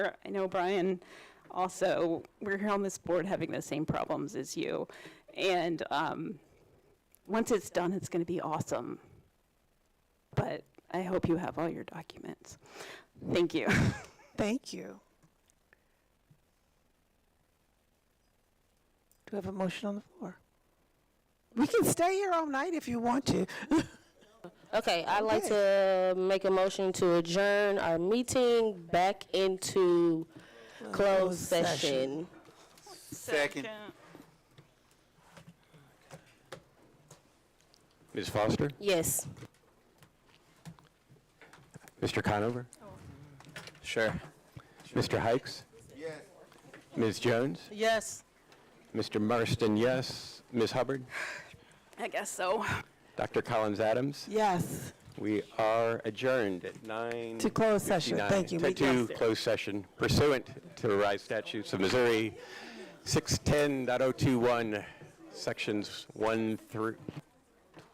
I know Brian also, we're here on this board having the same problems as you. And um, once it's done, it's going to be awesome. But I hope you have all your documents. Thank you. Thank you. Do we have a motion on the floor? We can stay here all night if you want to. Okay, I'd like to make a motion to adjourn our meeting back into closed session. Second. Ms. Foster? Yes. Mr. Conover? Sure. Mr. Hikes? Yes. Ms. Jones? Yes. Mr. Marston, yes. Ms. Hubbard? I guess so. Dr. Collins Adams? Yes, We are adjourned at 9:59. to close session. Thank you. To- We- To close session pursuant to the Rise statutes of oh Missouri, 610.021, Sections 1 through,